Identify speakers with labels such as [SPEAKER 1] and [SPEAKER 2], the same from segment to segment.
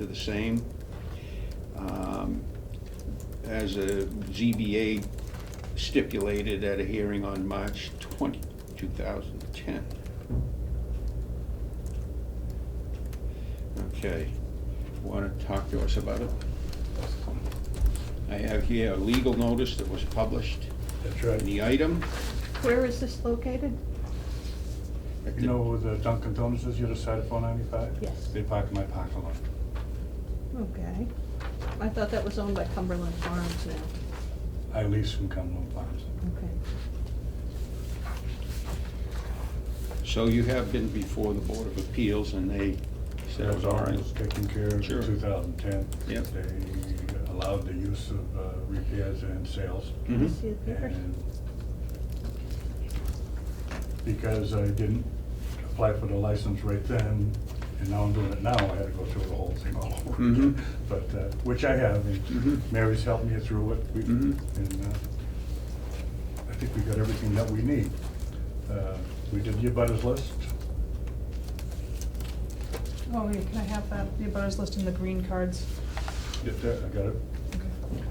[SPEAKER 1] They're the same. Um, As a ZBA stipulated at a hearing on March 20, 2010. Okay, want to talk to us about it? I have here a legal notice that was published
[SPEAKER 2] That's
[SPEAKER 1] in
[SPEAKER 2] right.
[SPEAKER 1] the item.
[SPEAKER 3] Where is this located?
[SPEAKER 1] at the-
[SPEAKER 2] You know where the Dunkin' Donuts is, the other side of four ninety-five?
[SPEAKER 3] Yes.
[SPEAKER 2] They park in my parking lot.
[SPEAKER 3] Okay. I thought that was owned by Cumberland Farms now.
[SPEAKER 2] I lease from Cumberland Farms.
[SPEAKER 3] Okay.
[SPEAKER 1] So you have been before the Board of Appeals and they said it was all right.
[SPEAKER 2] was Taken care of in
[SPEAKER 1] Sure.
[SPEAKER 2] two thousand ten.
[SPEAKER 1] Yep.
[SPEAKER 2] They allowed the use of uh, repairs and sales.
[SPEAKER 3] I
[SPEAKER 1] Mhm.
[SPEAKER 3] see the papers.
[SPEAKER 2] And Because I didn't apply for the license right then, and now I'm doing it now, I had to go through the whole thing all over
[SPEAKER 1] Mhm.
[SPEAKER 2] again. But, uh, which I have,
[SPEAKER 1] Mhm.
[SPEAKER 2] and Mary's helped me through it. We-
[SPEAKER 1] Mhm.
[SPEAKER 2] And uh, I think we got everything that we need. Uh, We did the abutters list.
[SPEAKER 4] Oh, yeah, can I have that, the abutters list and the green cards?
[SPEAKER 2] Get that, I got it.
[SPEAKER 4] Okay.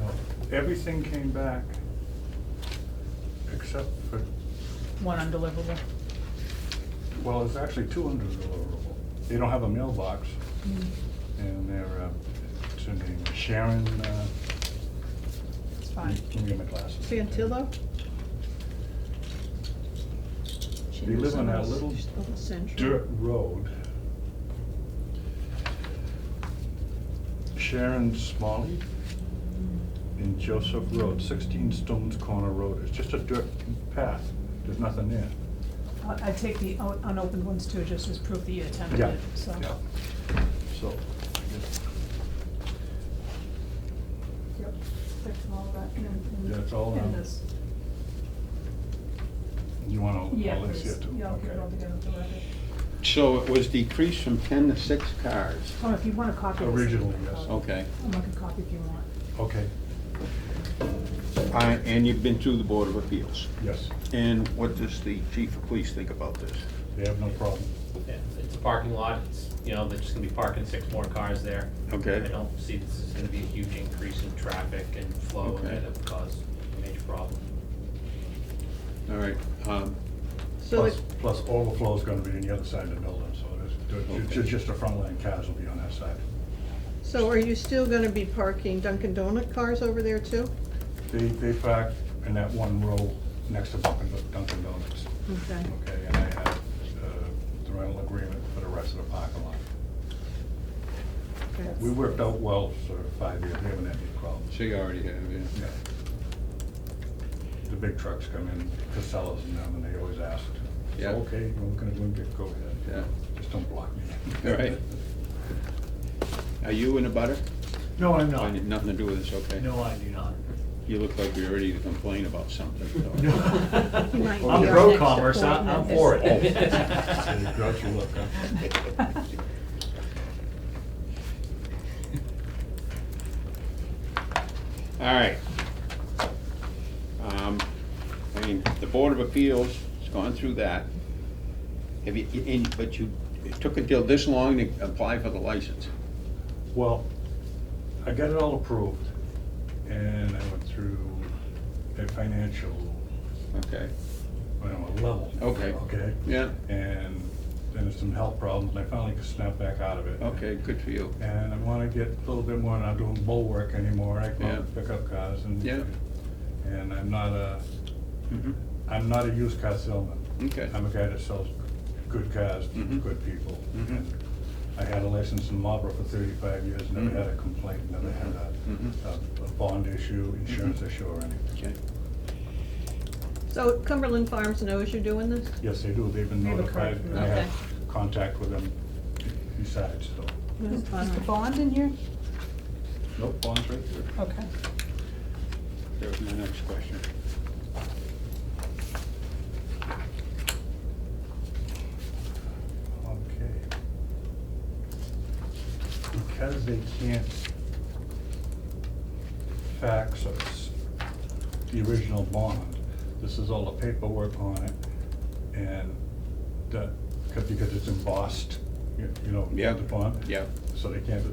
[SPEAKER 2] No, Everything came back except for,
[SPEAKER 4] One undeliverable.
[SPEAKER 2] well, it's actually two hundred deliverable. They don't have a mailbox. And they're, uh, it's her name, Sharon, uh,
[SPEAKER 4] It's
[SPEAKER 2] let
[SPEAKER 4] fine.
[SPEAKER 2] me- let me get my glasses.
[SPEAKER 3] Fantillo? She
[SPEAKER 2] They
[SPEAKER 3] lives
[SPEAKER 2] live on that
[SPEAKER 3] the-
[SPEAKER 2] little
[SPEAKER 3] Little Century.
[SPEAKER 2] Dirt road. Sharon Smalley and Joseph Road, sixteen Stones Corner Road. It's just a dirt path. There's nothing there.
[SPEAKER 4] I- I'd take the un- unopened ones too, just as proof that you attempted
[SPEAKER 2] Yeah.
[SPEAKER 4] it, so.
[SPEAKER 2] Yeah. So, I guess
[SPEAKER 4] Yep, that's all that, and- and-
[SPEAKER 2] That's all, um,
[SPEAKER 4] And this,
[SPEAKER 2] you want all,
[SPEAKER 4] yeah,
[SPEAKER 2] all this here
[SPEAKER 4] please,
[SPEAKER 2] too?
[SPEAKER 4] yeah, I'll get it all
[SPEAKER 2] Okay.
[SPEAKER 4] together for the record.
[SPEAKER 1] So it was decreased from 10 to 6 cars.
[SPEAKER 4] Oh, if you want a copy. of this, Um,
[SPEAKER 2] Originally, yes.
[SPEAKER 4] I'll-
[SPEAKER 1] Okay.
[SPEAKER 4] I'll make a copy if you want.
[SPEAKER 2] Okay,
[SPEAKER 1] Uh, And you've been through the Board of Appeals.
[SPEAKER 2] yes,
[SPEAKER 1] And what does the chief of police think about this?
[SPEAKER 2] they have no problem.
[SPEAKER 5] Yeah, It's a parking lot, it's, you know, they're just gonna be parking six more cars there.
[SPEAKER 1] Okay.
[SPEAKER 5] I don't see this is gonna be a huge increase in traffic and flow
[SPEAKER 1] Okay.
[SPEAKER 5] that would cause a major problem.
[SPEAKER 1] All right, um,
[SPEAKER 3] So
[SPEAKER 2] Plus,
[SPEAKER 3] it,
[SPEAKER 2] plus overflow's gonna be on the other side of the building, so there's, ju- ju-
[SPEAKER 1] Okay.
[SPEAKER 2] just the front line cars will be on that side.
[SPEAKER 3] so are you still gonna be parking Dunkin' Donut cars over there too?
[SPEAKER 2] They, they park in that one row next to Dunkin' Dunkin' Donuts.
[SPEAKER 3] Okay.
[SPEAKER 2] Okay, and I have uh, the rental agreement for the rest of the parking lot.
[SPEAKER 3] Okay.
[SPEAKER 2] We worked out well for five years, we haven't had any problems.
[SPEAKER 1] so you already have, yeah.
[SPEAKER 2] Yeah. The big trucks come in, Casellas and them, and they always ask, it's
[SPEAKER 1] Yeah.
[SPEAKER 2] okay, we're gonna do it, go ahead.
[SPEAKER 1] Yeah.
[SPEAKER 2] Just don't block me.
[SPEAKER 1] All right. Are you in a butter?
[SPEAKER 6] No, I'm
[SPEAKER 1] I
[SPEAKER 6] not.
[SPEAKER 1] had Nothing to do with this, okay?
[SPEAKER 6] No, I do not.
[SPEAKER 1] You look like you're ready to complain about something. so-
[SPEAKER 3] He might be
[SPEAKER 6] I'm
[SPEAKER 3] our
[SPEAKER 6] pro
[SPEAKER 3] next
[SPEAKER 6] commerce, I- I'm
[SPEAKER 3] appointment.
[SPEAKER 6] for
[SPEAKER 2] So you
[SPEAKER 6] it.
[SPEAKER 2] grouchy look, huh?
[SPEAKER 1] All right. Um, I mean, the Board of Appeals has gone through that. Have you, and- but you, it took until this long to apply for the license?
[SPEAKER 2] Well, I got it all approved, and I went through a financial,
[SPEAKER 1] Okay,
[SPEAKER 2] I don't know, level.
[SPEAKER 1] Okay.
[SPEAKER 2] Okay?
[SPEAKER 1] yeah,
[SPEAKER 2] And then there's some health problems, and I finally could snap back out of it.
[SPEAKER 1] okay, good for you.
[SPEAKER 2] And I wanna get a little bit more, not doing bull work anymore, I go out and
[SPEAKER 1] Yeah.
[SPEAKER 2] pick up cars and.
[SPEAKER 1] Yeah.
[SPEAKER 2] And I'm not a,
[SPEAKER 1] Mhm.
[SPEAKER 2] I'm not a used car salesman.
[SPEAKER 1] Okay.
[SPEAKER 2] I'm a guy that sells good cars to
[SPEAKER 1] Mhm.
[SPEAKER 2] good people.
[SPEAKER 1] Mhm.
[SPEAKER 2] And I had a license in Marlboro for thirty-five years, never
[SPEAKER 1] Mhm.
[SPEAKER 2] had a complaint, never had a,
[SPEAKER 1] Mhm.
[SPEAKER 2] a- a bond issue, insurance issue or anything.
[SPEAKER 1] Okay.
[SPEAKER 3] So Cumberland Farms knows you're doing this?
[SPEAKER 2] Yes, they do, they've been
[SPEAKER 4] They have a card
[SPEAKER 2] notified,
[SPEAKER 4] for
[SPEAKER 2] and
[SPEAKER 4] that.
[SPEAKER 2] I have
[SPEAKER 3] Okay.
[SPEAKER 2] contact with them besides, so.
[SPEAKER 4] Is
[SPEAKER 3] All
[SPEAKER 4] is the
[SPEAKER 3] right.
[SPEAKER 4] bond in here?
[SPEAKER 2] Nope, bonds right there.
[SPEAKER 4] Okay.
[SPEAKER 1] There's my next question.
[SPEAKER 2] Okay. Because they can't fax us the original bond, this is all the paperwork on it, and the, 'cause- because it's embossed, you you know,
[SPEAKER 1] Yeah.
[SPEAKER 2] the bond.
[SPEAKER 1] Yeah.
[SPEAKER 2] so they can't